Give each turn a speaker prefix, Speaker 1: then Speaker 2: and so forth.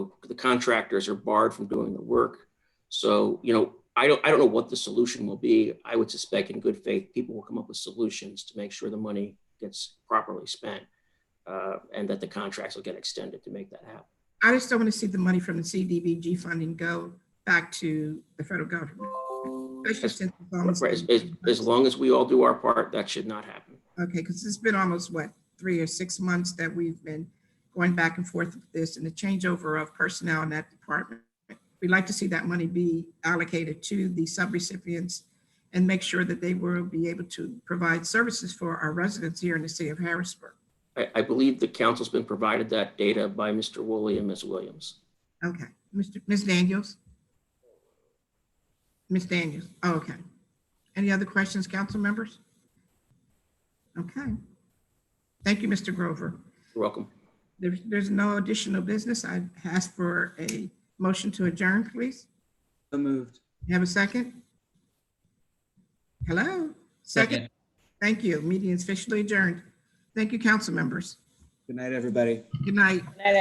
Speaker 1: the contractors are barred from doing the work. So, you know, I don't, I don't know what the solution will be. I would suspect in good faith, people will come up with solutions to make sure the money gets properly spent uh, and that the contracts will get extended to make that happen.
Speaker 2: I just don't want to see the money from the CDBG funding go back to the federal government. Especially since it's almost-
Speaker 1: Right, As, as- as long as we all do our part, that should not happen.
Speaker 2: Okay, because it's been almost, what, three or six months that we've been going back and forth with this and the changeover of personnel in that department. We'd like to see that money be allocated to the subrecipients and make sure that they will be able to provide services for our residents here in the city of Harrisburg.
Speaker 1: I, I believe the council's been provided that data by Mr. Woolley and Ms. Williams.
Speaker 2: Okay, Mr., Ms. Daniels? Ms. Daniels, oh, okay. Any other questions, council members? Okay. Thank you, Mr. Grover.
Speaker 1: You're welcome.
Speaker 2: There's, there's no additional business. I ask for a motion to adjourn, please.
Speaker 3: So moved.
Speaker 2: You Have a second? Hello? Second? Thank you. Meeting is officially adjourned. Thank you, council members.
Speaker 3: Good night, everybody.
Speaker 2: Good night.